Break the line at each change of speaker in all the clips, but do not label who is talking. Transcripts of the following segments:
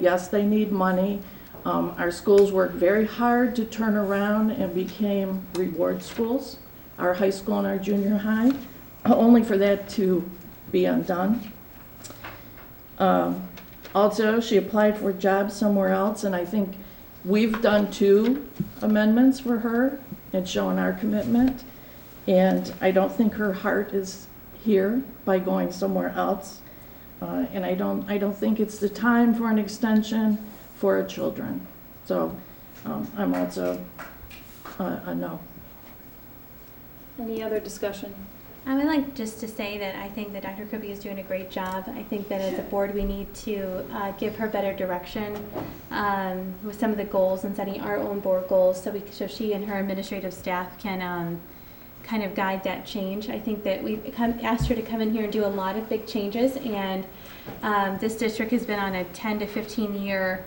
Yes, they need money. Um, Our schools worked very hard to turn around and became reward schools, our high school and our junior high, uh, only for that to be undone. Um, Also, she applied for a job somewhere else, and I think we've done two amendments for her and shown our commitment. And I don't think her heart is here by going somewhere else. Uh, And I don't, I don't think it's the time for an extension for our children. So um, I'm also uh, a no.
Any other discussion?
I would like just to say that I think that Dr. Kirby is doing a great job. I think that as a board, we need to uh, give her better direction um, with some of the goals and setting our own board goals so we, so she and her administrative staff can um, kind of guide that change. I think that we've come, asked her to come in here and do a lot of big changes, and um, this district has been on a 10 to 15-year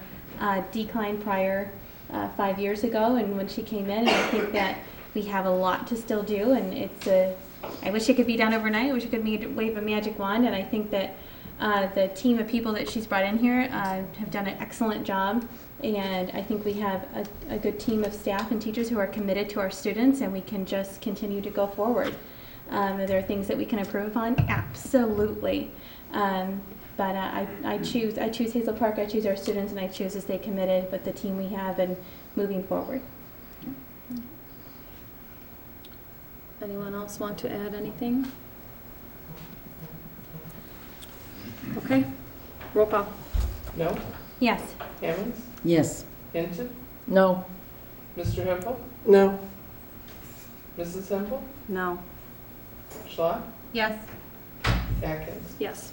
decline prior uh, five years ago, and when she came in, and I think that we have a lot to still do, and it's a, I wish it could be done overnight, I wish it could be, wave a magic wand, and I think that uh, the team of people that she's brought in here uh, have done an excellent job, and I think we have a, a good team of staff and teachers who are committed to our students, and we can just continue to go forward. Um, are there things that we can improve upon? Absolutely. Um, but uh, I, I choose I choose Hazel Park. I choose our students, and I choose to stay committed with the team we have and moving forward.
Anyone else want to add anything? Okay, roll call.
No?
Yes.
Hammonds?
Yes.
Hinton?
No.
Mr. Hempel?
No.
Mrs. Hempel?
No.
Schlot?
Yes.
Atkins?
Yes.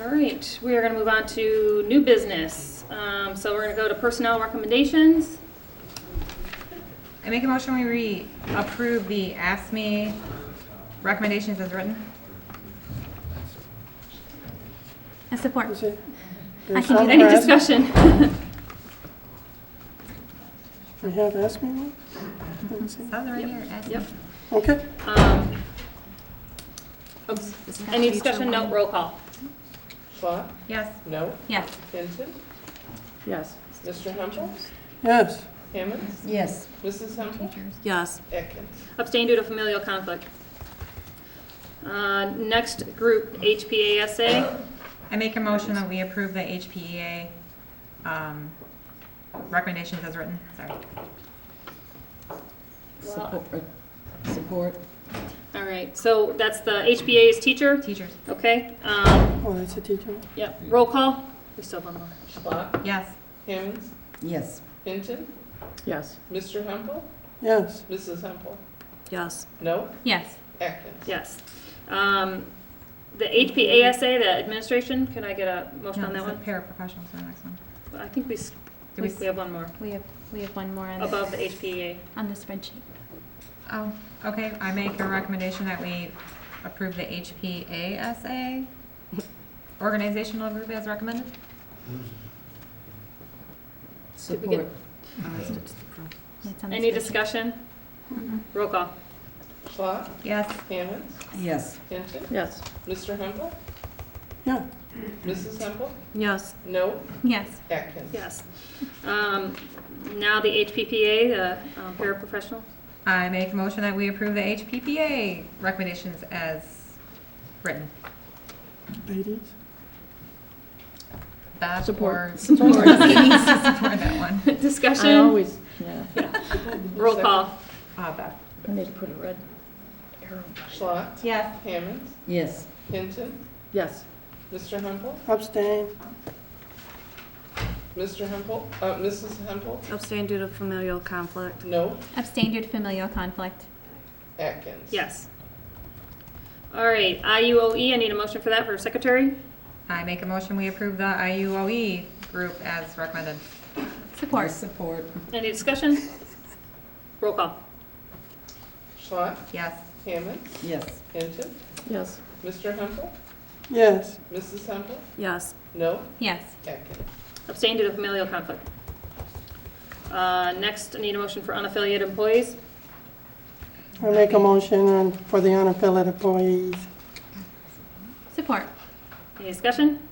All right, we are going to move on to new business. Um, So we're going to go to personnel recommendations.
I make a motion we re, approve the ASME E recommendations as written.
I support. I
There's
can do
some
that.
Any
for asthma.
discussion?
We have asked me one? Let me see.
Sounds right here,
Yep.
ASME.
Okay,
Um, oops, Any discussion? No, roll call.
Schlot?
Yes.
No?
Yes.
Hinton?
Yes.
Mr. Hempel?
yes,
Hammonds?
Yes.
Mrs. Hempel?
Yes.
Atkins?
Abstain due to familial conflict. Uh, Next group, HPASA.
I make a motion that we approve the HPEA, um, recommendations as written, sorry.
Well,
Support. Support.
All right, so that's the HPA is teacher,
Teachers,
okay? um,
well, Oh, that's a teacher.
Yep, roll call. We still have one more.
Schlot?
yes.
Hammonds?
Yes.
Hinton?
Yes.
Mr. Hempel?
Yes,
Mrs. Hempel?
Yes.
No?
Yes.
Atkins?
Yes. Um, The HPASA, the administration, can I get a motion on that
No,
one?
it's the paraprofessionals, the next one.
I think we, s-
Did
we
we
we have one more,
We have we have one more on the,
above the HPA.
on the spreadsheet.
Oh, okay, I make a recommendation that we approve the E HPASA organizational group as recommended.
Did we get-
Support.
It's on the
Any
spreadsheet.
discussion? Roll call.
Schlot?
Yes.
Hammonds?
Yes.
Hinton?
Yes.
Mr. Hempel?
yeah,
Mrs. Hempel?
Yes.
No?
Yes.
Atkins?
Yes. Um, Now the HPPA, the um, paraprofessional.
I make a motion that we approve the HPPA recommendations as written.
ladies.
That
Support.
or support. Support that one.
I
Discussion,
always, yeah,
roll call.
Uh, Beth.
I need to put a red arrow.
Schlot?
Yes.
Hammonds?
Yes.
Hinton?
Yes.
Mr. Hempel?
Abstain,
Mr. Hempel? Uh, Mrs. Hempel?
Abstain due to familial conflict.
No?
Abstain due to familial conflict.
Atkins?
Yes. All right, IUOE, I need a motion for that for secretary.
I make a motion, we approve the IUOE E group as recommended.
Support.
Support.
Any discussion? Roll call.
Schlot?
Yes.
Hammond?
Yes.
Hinton?
Yes.
Mr. Hempel?
yes,
Mrs. Hempel?
Yes.
No?
Yes.
Atkins?
Abstain due to familial conflict. Uh, Next, I need a motion for unaffiliated employees.
I make a motion on- for the unaffiliated employees.
Support.
Any discussion?